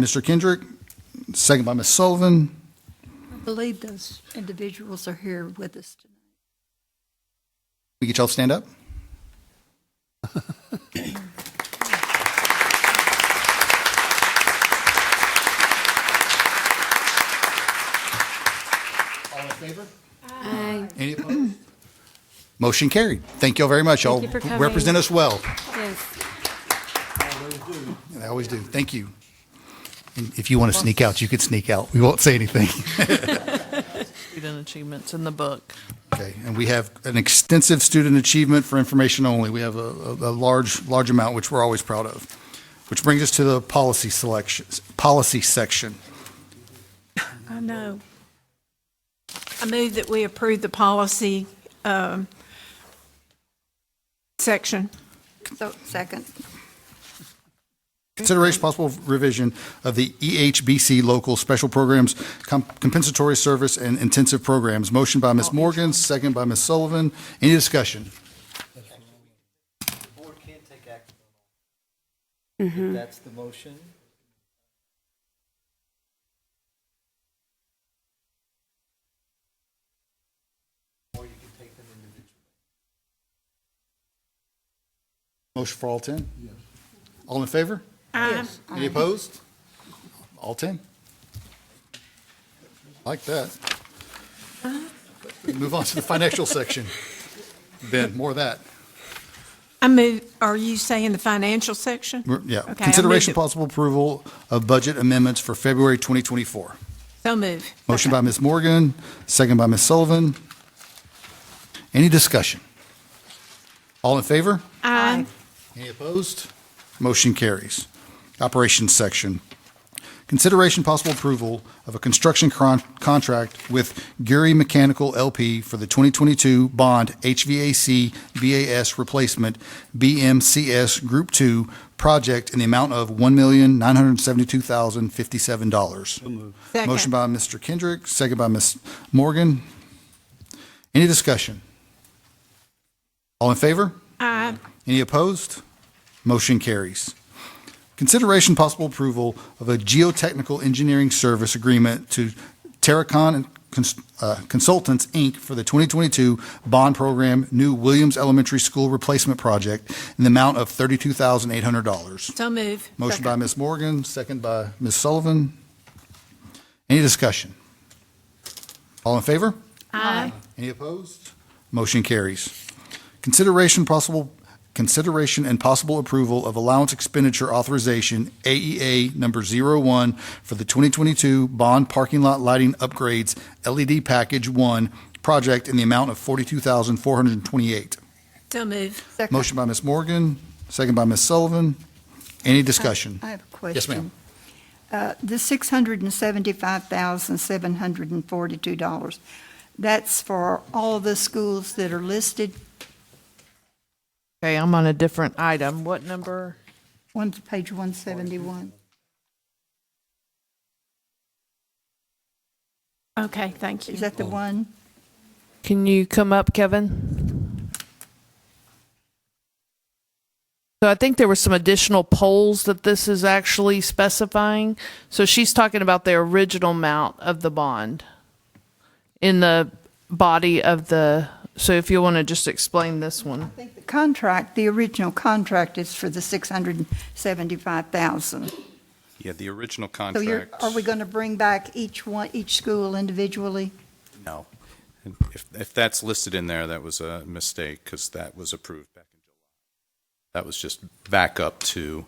Mr. Kendrick, second by Ms. Sullivan. I believe those individuals are here with us tonight. We get y'all to stand up. All in favor? Aye. Any opposed? Motion carried. Thank y'all very much. Y'all you for coming. represent us well. Yes. They always do. Thank you. And if you want to sneak out, you could sneak out. We won't say anything. Student achievements in the book. Okay, and we have an extensive student achievement for information only. We have a, a a large, large amount, which we're always proud of. Which brings us to the policy selections, policy section. I know. I move that we approve the policy um, section. So, second. Consideration possible revision of the E EHBC local special programs, com- compensatory service and intensive programs. Motion by Ms. Morgan, second by Ms. Sullivan. Any discussion? board can take action on all. If That's the motion. Or you can take them individually. Motion for all 10? Yes. All in favor? Aye. Any opposed? All 10? Like that. Move on to the financial section. Ben, more of that. I move, are you saying the financial section? We're- Yeah. Okay, I Consideration moved it. possible approval of budget amendments for February 2024. So move. Motion by Ms. Morgan, second by Ms. Sullivan. Any discussion? All in favor? Aye. Any opposed? Motion carries. Operations section. Consideration possible approval of a construction con- contract with Gary Mechanical LP for the 2022 Bond HVAC BAS Replacement BMCS Group 2 Project in the amount of $1,972,057. Second. Motion by Mr. Kendrick, second by Ms. Morgan. Any discussion? All in favor? Aye. Any opposed? Motion carries. Consideration possible approval of a geotechnical engineering service agreement to Terracon Cons- uh, Consultants, Inc. for the 2022 bond program new Williams Elementary School Replacement Project in the amount of $32,800. So move. Motion by Ms. Morgan, second by Ms. Sullivan. Any discussion? All in favor? Aye. Any opposed? Motion carries. Consideration possible, consideration and possible approval of allowance expenditure authorization, AEA number 01, for the 2022 bond parking lot lighting upgrades LED Package 1 project in the amount of 42428 So move. Second. Motion by Ms. Morgan, second by Ms. Sullivan. Any discussion? I have a question. Yes, ma'am. Uh, The $675,742, that's for all the schools that are listed? Okay, I'm on a different item. What number? One's page 171. Okay, thank you. Is that the one? Can you come up, Kevin? So I think there were some additional polls that this is actually specifying. So she's talking about the original amount of the bond in the body of the, so if you want to just explain this one. I think the contract, the original contract is for the 675,000. Yeah, the original So you're, contract. are we going to bring back each one, each school individually? No. And If, if that's listed in there, that was a mistake, because that was approved back in July. That was just back up to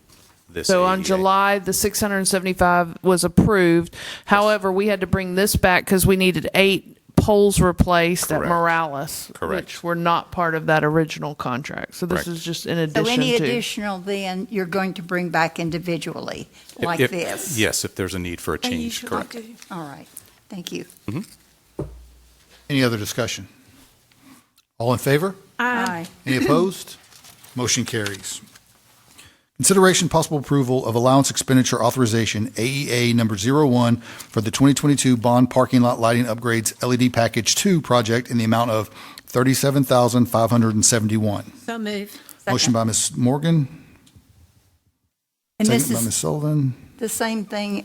this. E So on AEA. July, the 675 was approved. However, we had to bring this back because we needed eight poles replaced at Correct. Morales, Correct. which were not part of that original contract. So this Correct. is just in So addition any to. additional then, you're going to bring back individually, If- like if- this? Yes, if there's a need for a change, correct. All right, thank you. Any other discussion? All in favor? Aye. Any opposed? Motion carries. Consideration possible approval of allowance expenditure authorization, AEA number 01, for the 2022 bond parking lot lighting upgrades LED Package 2 project in the amount of 37571 So move. Motion by Ms. Morgan, And second this by Ms. is Sullivan. the same thing